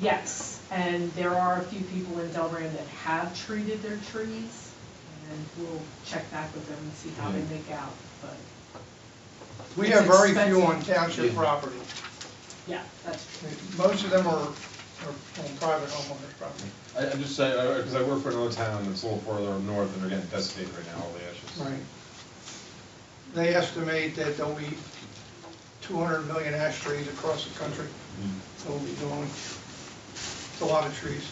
Yes, and there are a few people in Delran that have treated their trees, and we'll check back with them and see how they make out, but, We It's have very few on expensive. township property. yeah, that's true. Most of them are, are on private homeowners' property. I, I'm just saying, because I work for another town that's a little further up north, and they're getting devastated right now, all the ashes. Right. They estimate that there'll be 200 million ash trees across the country that will be going. It's a lot of trees.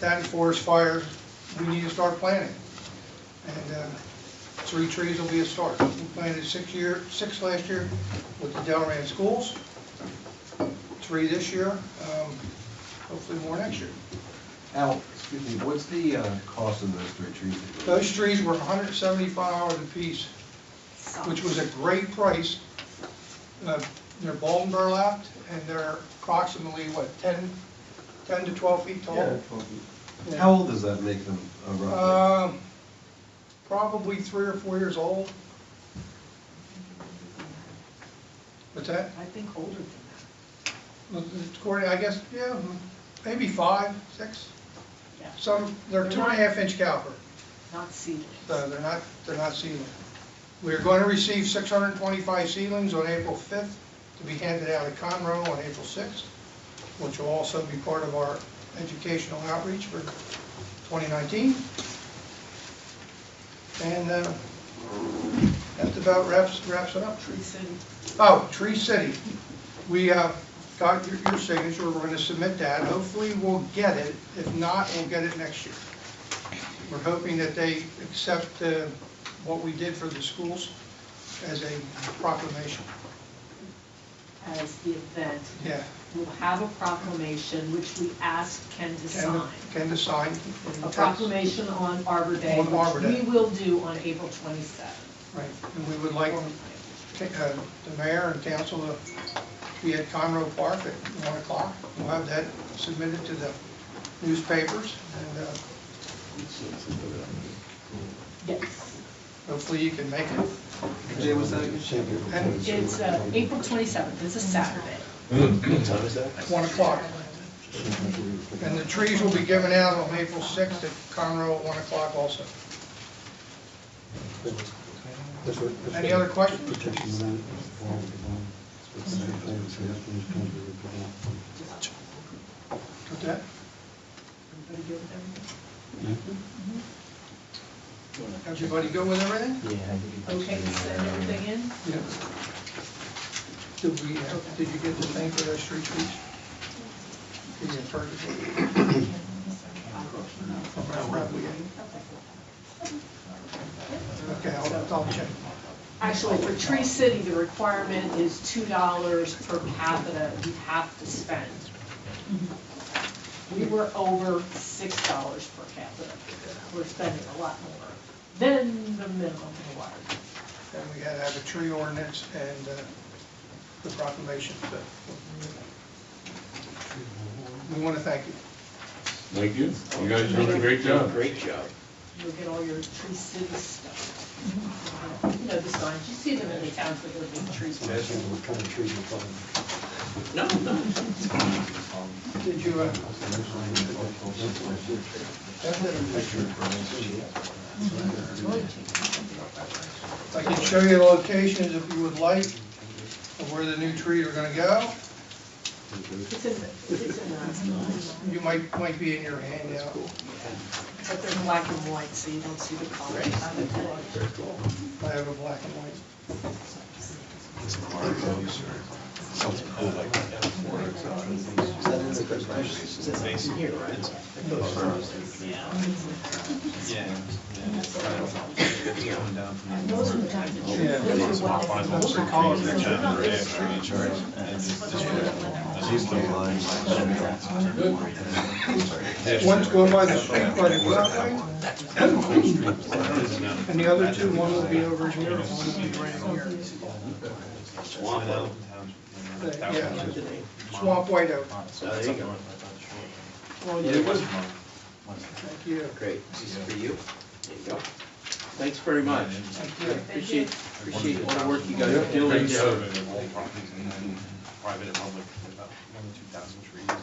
That and forest fires, we need to start planting. And uh, three trees will be a start. We planted six year, six last year with the Delran schools, three this year, um, hopefully more next year. Al, excuse me, what's the uh, cost of those three trees? that you- Those trees were 175 dollars a piece. which was a great price. Uh, They're bald and burlapped, and they're approximately, what, 10, 10 to 12 feet Yeah, tall? twelve feet. Yeah. How old does that make them uh, roughly? Um, Probably three or four years old. What's that? I think older than that, According, I guess, yeah, maybe five, six. yeah, Some, they're two and a half inch caliber. not seedlings. No, Uh, they're not, they're not sealing. We are going to receive 625 sealings on April 5th to be handed out at Conroe on April 6th, which will also be part of our educational outreach for 2019. And uh, that about wraps, wraps it up. Tree city, Oh, Tree City. We uh, got your your signature, we're going to submit that. Hopefully, we'll get it. If not, we'll get it next year. We're hoping that they accept uh, what we did for the schools as a proclamation. as the event. Yeah. We'll have a proclamation, which we asked Ken to Can sign. Ken to sign. A proclamation on Arbor Day, On Arbor which Day. we will do on April 27th. Right, and we would like ta- uh, the mayor and council to be at Conroe Park at 1 o'clock. We'll have that submitted to the newspapers, and uh, Yes. hopefully you can make it. Jay, what's that? again? And It's uh, April 27th, it's a Saturday. one o'clock. And the trees will be given out on April 6th at Conroe at one o'clock also. Any other questions? What's that? Everybody good with everything? Everybody good with everything? Okay, you send everything in? Yeah. Did we, uh, did you get the thing for those street trees? Did you purchase it? From Ralph Bradley? Okay, I'll, I'll check. Actually, for Tree City, the requirement is $2 per capita you have to spend. We were over $6 per capita. We're spending a lot more than the minimum required. And we had to have a tree ordinance and uh, the proclamation, so. We want to thank you. Thank you. You guys are doing a great job. Great job. You'll get all your tree city stuff. You know, the signs, you see them in the towns with their big trees. No, no. Did you, uh, I can show you the locations if you would like of where the new trees are going to go. It's in, the- it's in, the- You might, might be in your handout. but they're black and white, so you don't see the colors. I have a black and white. Those are wild. Those are colors that generate insurance. One's going by the street, by the driveway. And the other two, one will be over here, and one will be right in here. Yeah, Swamp White Oak. There you go. Well, Yeah, it was Thank you. great. This is for you. There you go. Thanks very much. Thank you. Appreciate, appreciate all the work you guys are doing. Great survey of all properties and then private and public, about one to two thousand trees.